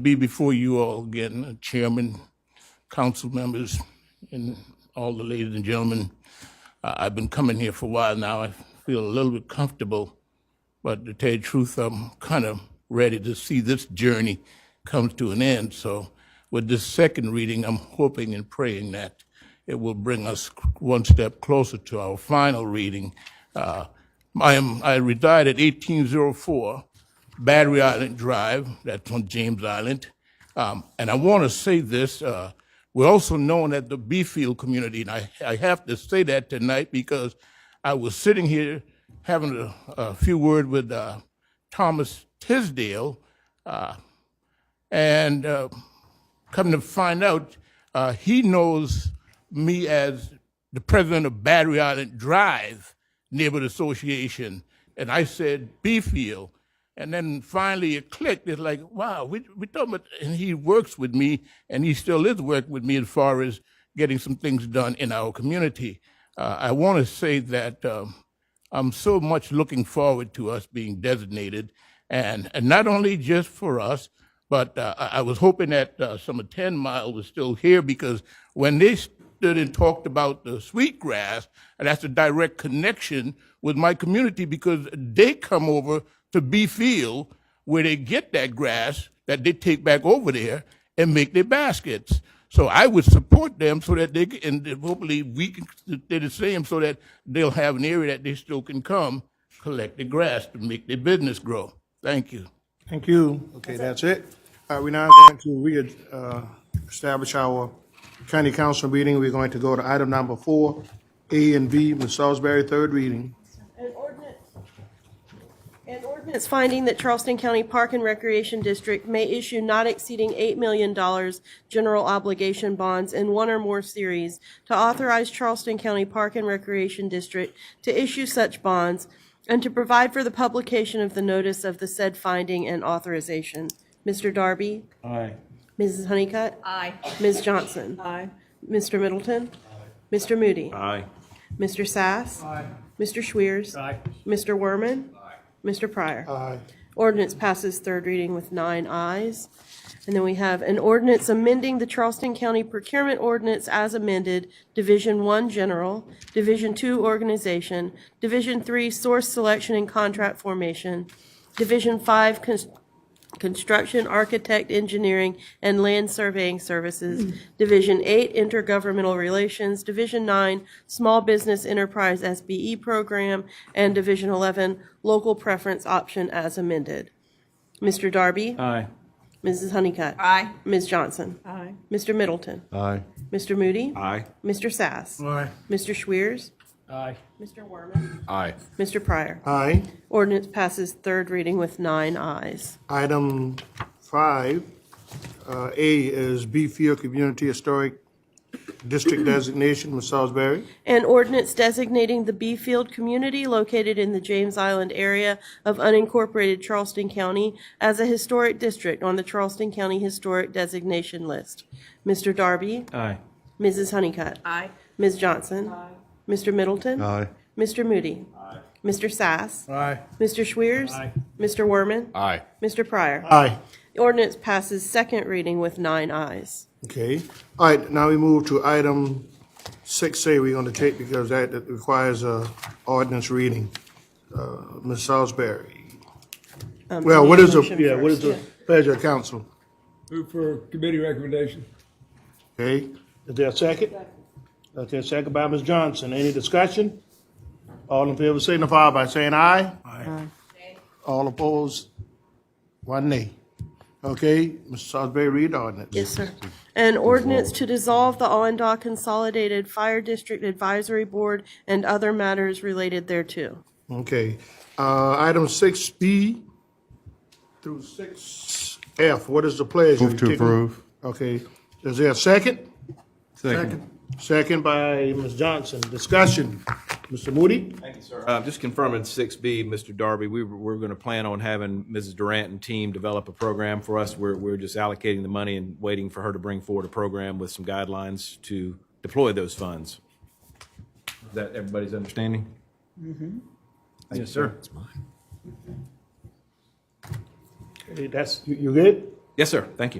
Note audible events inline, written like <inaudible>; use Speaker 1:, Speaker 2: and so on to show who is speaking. Speaker 1: be before you all again, uh, Chairman, council members, and all the ladies and gentlemen. I- I've been coming here for a while now. I feel a little bit comfortable, but to tell you the truth, I'm kind of ready to see this journey comes to an end. So with this second reading, I'm hoping and praying that it will bring us one step closer to our final reading. Uh, I am, I reside at 1804 Battery Island Drive, that's on James Island. Um, and I want to say this, uh, we're also known as the Beefield community, and I, I have to say that tonight because I was sitting here having a, a few words with uh, Thomas Tisdale, uh, and uh, come to find out, uh, he knows me as the president of Battery Island Drive Neighborhood Association. And I said, Beefield. And then finally it clicked. It's like, wow, we, we talking about, and he works with me, and he still is working with me as far as getting some things done in our community. Uh, I want to say that um, I'm so much looking forward to us being designated, and, and not only just for us, but uh, I I was hoping that uh, some of 10 Mile was still here because when they stood and talked about the sweetgrass, and that's a direct connection with my community because they come over to B Field where they get that grass that they take back over there and make their baskets. So I would support them so that they can, and then hopefully we can do the same so that they'll have an area that they still can come collect the grass to make their business grow. Thank you.
Speaker 2: Thank you. Okay, that's it. All right, we're now going to re, uh, establish our county council meeting. We're going to go to item number four, A and B, Ms. Salisbury, third reading.
Speaker 3: An ordinance, an ordinance finding that Charleston County Park and Recreation District may issue not exceeding $8 million general obligation bonds in one or more series to authorize Charleston County Park and Recreation District to issue such bonds and to provide for the publication of the notice of the said finding and authorization. Mr. Darby? Aye. Mrs. Honeycutt?
Speaker 4: Aye.
Speaker 3: Ms. Johnson?
Speaker 4: Aye.
Speaker 3: Mr. Middleton? Mr. Moody?
Speaker 5: Aye.
Speaker 3: Mr. Sass? Aye. Mr. Schwiers? Aye. Mr. Werman? Aye. Mr. Pryor?
Speaker 2: Aye.
Speaker 3: Ordinance passes third reading with nine ayes. And then we have an ordinance amending the Charleston County Procurement Ordinance as amended, Division One General, Division Two Organization, Division Three Source Selection and Contract Formation, Division Five Cons- Construction, Architect, Engineering, and Land Surveying Services, Division 8, Intergovernmental Relations, Division 9, Small Business Enterprise SBE Program, and Division 11, Local Preference Option as amended. Mr. Darby?
Speaker 5: Aye.
Speaker 3: Mrs. Honeycutt?
Speaker 4: Aye.
Speaker 3: Ms. Johnson?
Speaker 4: Aye.
Speaker 3: Mr. Middleton?
Speaker 5: Aye.
Speaker 3: Mr. Moody?
Speaker 5: Aye.
Speaker 3: Mr. Sass?
Speaker 2: Aye.
Speaker 3: Mr. Schwiers?
Speaker 5: Aye.
Speaker 3: Mr. Werman?
Speaker 5: Aye.
Speaker 3: Mr. Pryor?
Speaker 2: Aye.
Speaker 3: Ordinance passes third reading with nine ayes.
Speaker 2: Item five, uh, A is Beefield Community Historic <clears throat> District designation, Ms. Salisbury.
Speaker 3: An ordinance designating the Beefield community located in the James Island area of unincorporated Charleston County as a historic district on the Charleston County Historic Designation List. Mr. Darby,
Speaker 5: Aye.
Speaker 3: Mrs. Honeycutt,
Speaker 4: Aye.
Speaker 3: Ms. Johnson, Mr. Middleton,
Speaker 5: Aye.
Speaker 3: Mr. Moody, Mr. Sass,
Speaker 2: Aye.
Speaker 3: Mr. Schwiers, Mr. Werman,
Speaker 5: Aye.
Speaker 3: Mr. Pryor.
Speaker 2: Aye.
Speaker 3: The ordinance passes second reading with nine ayes.
Speaker 2: Okay. All right, now we move to item six A we're going to take because that that requires a ordinance reading. Uh, Ms. Salisbury. Well, what is the,
Speaker 3: motion
Speaker 2: yeah, what is the
Speaker 3: first,
Speaker 2: pleasure of council?
Speaker 6: Move for committee recommendation.
Speaker 2: Okay, is there a second? Okay, second by Ms. Johnson. Any discussion? All in favor signify by saying aye. Aye. All opposed? One nay. Okay, Ms. Salisbury, read the ordinance.
Speaker 3: Yes, sir. An ordinance to dissolve the Allendale Consolidated Fire District Advisory Board and other matters related thereto.
Speaker 2: Okay, uh, item six B through six F, what is the pleasure?
Speaker 7: Move to approve.
Speaker 2: Okay, is there a second?
Speaker 7: Second.
Speaker 2: Second by Ms. Johnson, discussion. Mr. Moody?
Speaker 8: Uh, Just confirming six B, Mr. Darby, we were, we're going to plan on having Mrs. Durant and team develop a program for us. We're, we're just allocating the money and waiting for her to bring forward a program with some guidelines to deploy those funds. Is that everybody's understanding? Yes, sir.
Speaker 2: Hey, That's, you, you good?
Speaker 8: Yes, sir. Thank you.